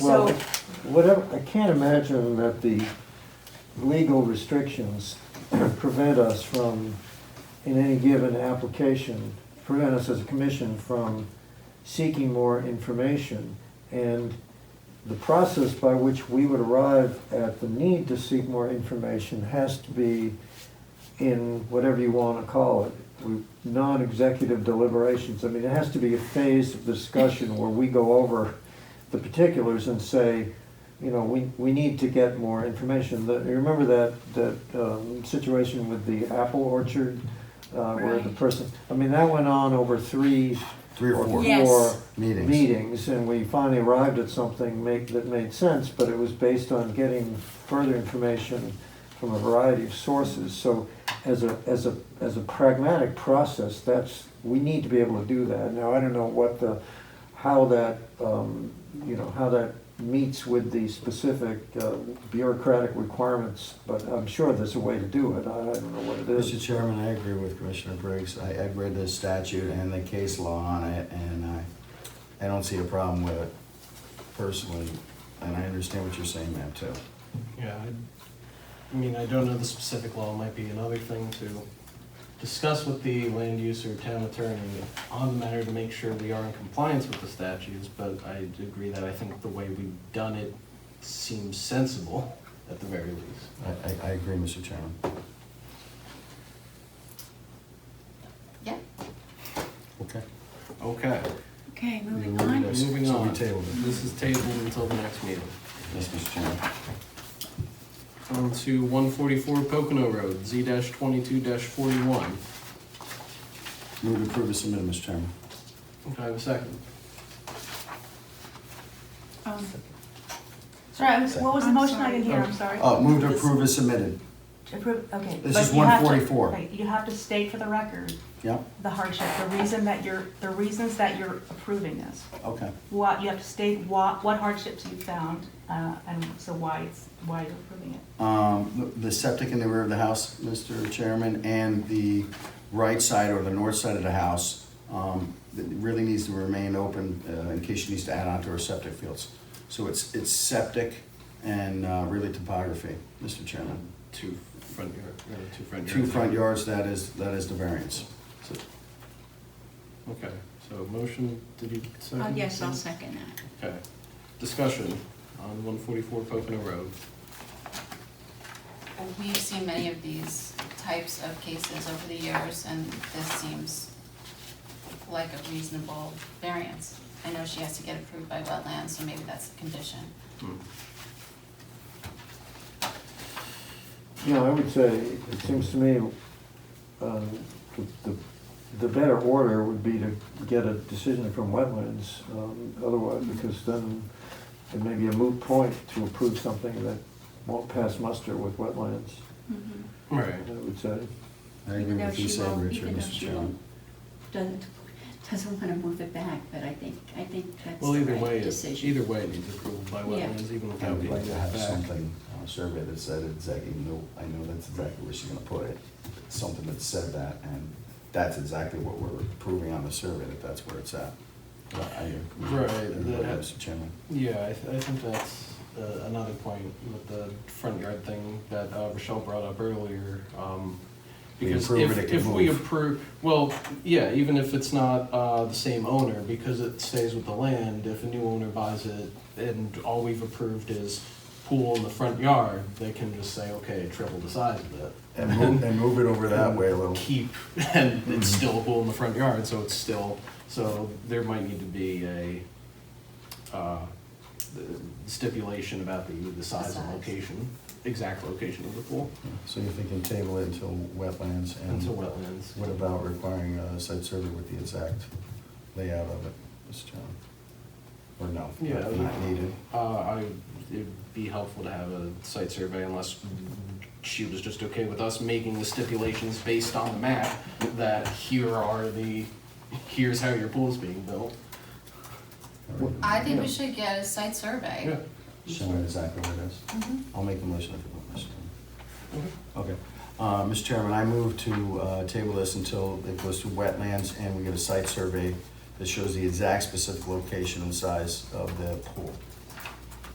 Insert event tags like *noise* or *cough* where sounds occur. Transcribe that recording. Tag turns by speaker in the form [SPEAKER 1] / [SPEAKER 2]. [SPEAKER 1] Well,
[SPEAKER 2] So,
[SPEAKER 1] whatever, I can't imagine that the legal restrictions prevent us from, in any given application, prevent us as a commission from seeking more information. And the process by which we would arrive at the need to seek more information has to be in whatever you want to call it, we- non-executive deliberations. I mean, it has to be a phase of discussion where we go over the particulars and say, you know, we, we need to get more information. The- You remember that, that um, situation with the apple orchard? uh, Where the
[SPEAKER 2] Right.
[SPEAKER 1] person, I mean, that went on over three
[SPEAKER 3] Three or four
[SPEAKER 2] Yeah. Yes.
[SPEAKER 3] meetings.
[SPEAKER 1] meetings, and we finally arrived at something make, that made sense, but it was based on getting further information from a variety of sources. So as a, as a, as a pragmatic process, that's, we need to be able to do that. Now, I don't know what the, how that, um, you know, how that meets with the specific uh, bureaucratic requirements, but I'm sure there's a way to do it. I I don't know what it
[SPEAKER 3] Mr.
[SPEAKER 1] is.
[SPEAKER 3] Chairman, I agree with Commissioner Briggs. I, I've read the statute and the case law on it, and I, I don't see a problem with it personally. And I understand what you're saying, ma'am, too.
[SPEAKER 4] Yeah, I, I mean, I don't know the specific law, might be another thing to discuss with the land use or town attorney on the matter to make sure we are in compliance with the statutes, but I agree that I think the way we've done it seems sensible at the very least.
[SPEAKER 3] I, I, I agree, Mr. Chairman.
[SPEAKER 5] Yeah.
[SPEAKER 3] Okay.
[SPEAKER 4] Okay,
[SPEAKER 2] okay, moving
[SPEAKER 3] We'll read
[SPEAKER 2] on. Um,
[SPEAKER 3] it.
[SPEAKER 4] moving
[SPEAKER 3] So we
[SPEAKER 4] on.
[SPEAKER 3] tabled it.
[SPEAKER 4] This is tabled until the next meeting.
[SPEAKER 3] Yes, Mr. Chairman.
[SPEAKER 4] On to one forty-four Pocono Road, Z twenty-two forty-one.
[SPEAKER 3] Move to approve as submitted, Mr. Chairman.
[SPEAKER 4] Can I have a second?
[SPEAKER 2] Um,
[SPEAKER 5] Sorry, I was- what was the
[SPEAKER 2] I'm
[SPEAKER 5] motion? I
[SPEAKER 2] sorry.
[SPEAKER 5] didn't hear, I'm sorry.
[SPEAKER 3] Uh, move to approve as submitted.
[SPEAKER 5] To approve, okay.
[SPEAKER 3] This
[SPEAKER 5] But
[SPEAKER 3] is
[SPEAKER 5] you have to-
[SPEAKER 3] 144.
[SPEAKER 5] right, You have to state for the record
[SPEAKER 3] Yep,
[SPEAKER 5] the hardship, the reason that you're, the reasons that you're approving this.
[SPEAKER 3] okay.
[SPEAKER 5] What, you have to state what, what hardships you found, uh, and so why it's, why you're approving it.
[SPEAKER 3] Um, the- the septic in the rear of the house, Mr. Chairman, and the right side or the north side of the house, um, that really needs to remain open, uh, in case she needs to add on to her septic fields. So it's, it's septic and, uh, really topography, Mr. Chairman.
[SPEAKER 4] Two front yard, uh, two front yards.
[SPEAKER 3] Two front yards, that is, that is the variance. So-
[SPEAKER 4] Okay, so motion, did you second?
[SPEAKER 2] uh, Yes, I'll second that.
[SPEAKER 4] Okay, discussion on one forty-four Pocono Road.
[SPEAKER 6] We've seen many of these types of cases over the years, and this seems like a reasonable variance. I know she has to get approved by wetlands, so maybe that's the condition.
[SPEAKER 4] Hmm.
[SPEAKER 1] You know, I would say, it seems to me, um, the- the the better order would be to get a decision from wetlands, um, otherwise, because then it may be a moot point to approve something that won't pass muster with wetlands,
[SPEAKER 2] Mhm.
[SPEAKER 4] All right,
[SPEAKER 1] I would say.
[SPEAKER 3] I agree
[SPEAKER 2] Even though
[SPEAKER 3] with you
[SPEAKER 2] she
[SPEAKER 3] saying,
[SPEAKER 2] won't-
[SPEAKER 3] Richard,
[SPEAKER 2] even though
[SPEAKER 3] Mr.
[SPEAKER 2] she
[SPEAKER 3] Chairman.
[SPEAKER 2] won't- Doesn't, doesn't want to move it back, but I think, I think that's
[SPEAKER 4] well,
[SPEAKER 2] the
[SPEAKER 4] either way,
[SPEAKER 2] right
[SPEAKER 4] it-
[SPEAKER 2] decision.
[SPEAKER 4] either way, it needs approval by
[SPEAKER 2] Yeah.
[SPEAKER 4] wetlands, even
[SPEAKER 3] I
[SPEAKER 4] without
[SPEAKER 3] would
[SPEAKER 4] being
[SPEAKER 3] like to have
[SPEAKER 4] back.
[SPEAKER 3] something on a survey that said exactly, no, I know that's exactly where she's gonna put it. Something that said that, and that's exactly what we're proving on the survey, that that's where it's at. But I agree with
[SPEAKER 4] Right,
[SPEAKER 3] everybody,
[SPEAKER 4] that-
[SPEAKER 3] Mr. Chairman.
[SPEAKER 4] Yeah, I, th- I think that's uh, another point with the front yard thing that uh, Rochelle brought up earlier. um,
[SPEAKER 3] We
[SPEAKER 4] Because
[SPEAKER 3] approve
[SPEAKER 4] if,
[SPEAKER 3] it, it can
[SPEAKER 4] if we
[SPEAKER 3] move.
[SPEAKER 4] approve, well, yeah, even if it's not uh, the same owner, because it stays with the land, if a new owner buys it and all we've approved is pool in the front yard, they can just say, okay, triple the size of it.
[SPEAKER 3] And move, and move it over that way Mm-hmm. a little.
[SPEAKER 4] Keep, *laughs* and it's still a pool in the front yard, so it's still, so there might need to be a uh, the stipulation about the, the size and
[SPEAKER 6] size.
[SPEAKER 4] location, exact location of the pool
[SPEAKER 3] So you're thinking table it until wetlands
[SPEAKER 4] until
[SPEAKER 3] and
[SPEAKER 4] wetlands.
[SPEAKER 3] what about requiring a site survey with the exact layout of it, Mr. Chairman? Or no?
[SPEAKER 4] Yeah, I
[SPEAKER 3] Not
[SPEAKER 4] would-
[SPEAKER 3] needed.
[SPEAKER 4] Uh, I, it'd be helpful to have a site survey unless she was just okay with us making the stipulations based on the map that here are the, here's how your pool's being built.
[SPEAKER 6] I think
[SPEAKER 1] Yeah.
[SPEAKER 6] we should get a site
[SPEAKER 4] Yeah,
[SPEAKER 6] survey.
[SPEAKER 3] Showing exactly where it is.
[SPEAKER 6] Mhm.
[SPEAKER 3] I'll make a motion if you want, Mr. Chairman. Okay. Uh, Mr. Chairman, I move to uh, table this until it goes to wetlands and we get a site survey that shows the exact specific location and size of the pool.